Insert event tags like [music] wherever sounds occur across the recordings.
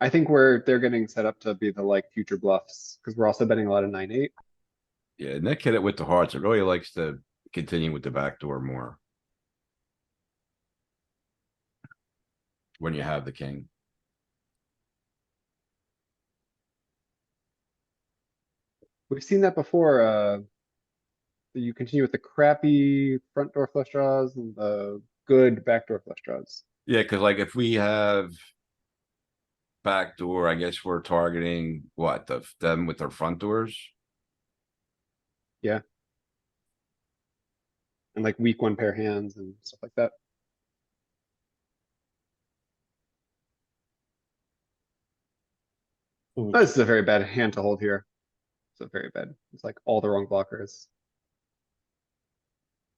I think we're, they're getting set up to be the like future bluffs, cuz we're also betting a lot of nine, eight. Yeah, and that kid with the hearts, it really likes to continue with the back door more. When you have the king. We've seen that before, uh. You continue with the crappy front door flush draws and the good backdoor flush draws. Yeah, cuz like if we have. Back door, I guess we're targeting what, the, them with their front doors? And like weak one pair hands and stuff like that. Ooh. Oh, This is a very bad hand to hold here. It's a very bad, it's like all the wrong blockers.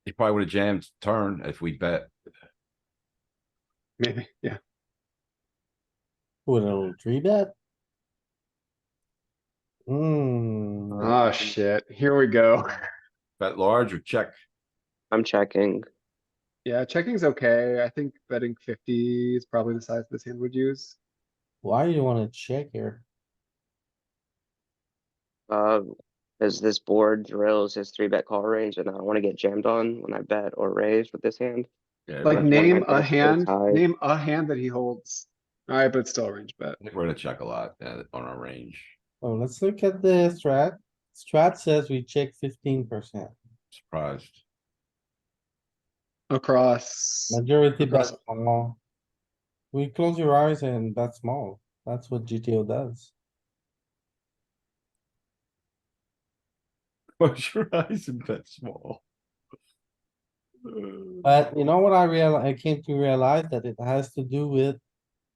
He probably would have jammed turn if we bet. Maybe, [laughs] yeah. With a little three bet? Hmm. Oh shit, here we go. [laughs] Bet large or check. I'm checking. Yeah, checking's okay. I think betting fifty is probably the size this hand would use. Why do you wanna check here? Uh, as this board drills his three bet call range, and I want to get jammed on when I bet or raise with this hand. Yeah, Like we're na- gonna- name I a guess, is hand, high. name a hand that he holds. Alright, but it's still a range bet. I think We're gonna check a lot uh, on our range. Oh, let's look at the strat. Strat says we check fifteen percent. Surprised. [laughs] Across, Majority bet Because- small. We close your eyes and that's small. That's what GTO does. Close your eyes and bet small. Uh, But you know what I real, I came to realize that it has to do with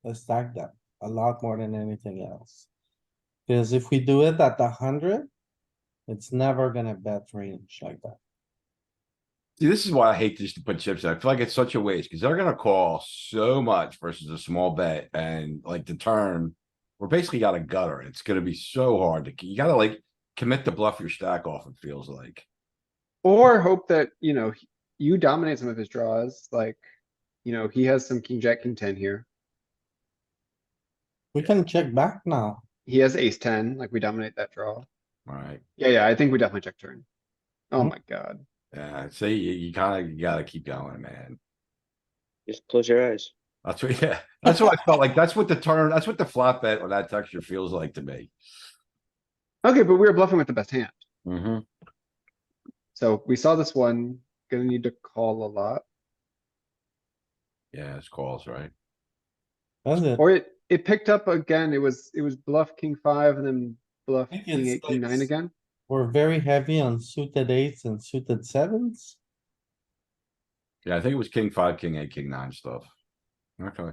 the stack depth a lot more than anything else. Cause if we do it at the hundred, it's never gonna bet range like that. See, this is why I hate just to put chips in. I feel like it's such a waste because they're gonna call so much versus a small bet and like the turn. We're basically got a gutter. It's gonna be so hard to, you gotta like commit to bluff your stack off, it feels like. or hope that, you know, he- you dominate some of his draws, like, you know, he has some king, jack, king ten here. We can check back now. He has ace ten, like we dominate that draw. Alright, Yeah, yeah, I think we definitely check turn. Oh Mhm. my god, yeah, see, you, you kinda, you gotta keep going, man. Just close your eyes. That's what, [laughs] yeah, that's what I felt like. That's what the turn, that's what the flop bet on that texture feels like to me. okay, but we were bluffing with the best hand, Mm-hmm. so we saw this one, gonna need to call a lot. Yeah, it's calls, right? That's it. Or it, it picked up again, it was, it was bluff king five and then bluff think king it's eight, king nine like- again. We're very heavy on suited eights and suited sevens. Yeah, I think it was king five, king eight, king nine stuff. Okay.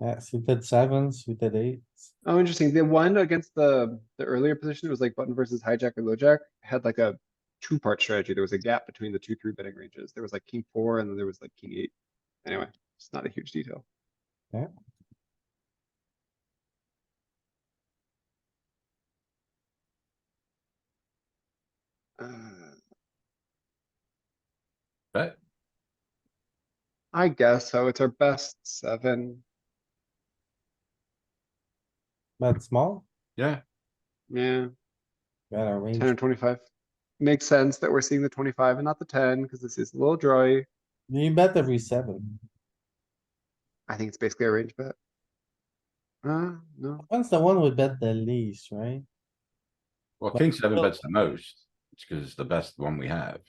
Yeah, suited sevens, suited eights. Oh, interesting. The one against the, the earlier position, it was like button versus hijack or LoJack, had like a two-part strategy. There was a gap between the two, three betting ranges. There was like king four and then there was like king eight. Anyway, it's not a huge detail. Uh, Bet. I guess so. It's our best seven. That's small. Yeah, Yeah. Got a Ten or range. twenty-five. Makes sense that we're seeing the twenty-five and not the ten, because this is a little drawy. You bet every seven. I think it's basically a range bet. Uh, no, When's the one we bet the least, right? well, Well, king seven well- bets the most. It's cuz it's the best one we have.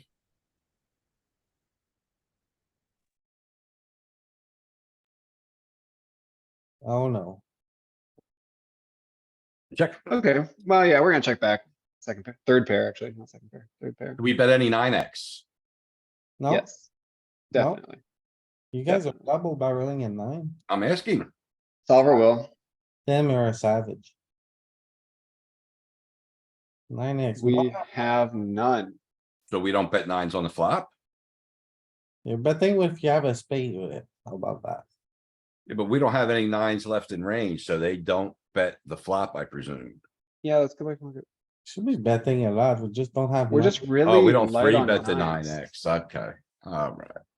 Oh no. Check. okay, well, yeah, we're gonna check back. Second pair, third pair, actually, not second pair, third pair. Do we bet any nine X? No, Yes. No. Definitely. you guys are double barreling at nine. I'm asking. Solver will. Damn, you're a savage. Nine X, We have none. So we don't bet nines on the flop? you're betting if you have a spade with it. How about that? Yeah, But we don't have any nines left in range, so they don't bet the flop, I presume. Yeah, let's go back and look at, Should be betting a lot. We just don't have. we're much. just really. Oh, we don't light three on bet the nine nines. X. Okay, alright.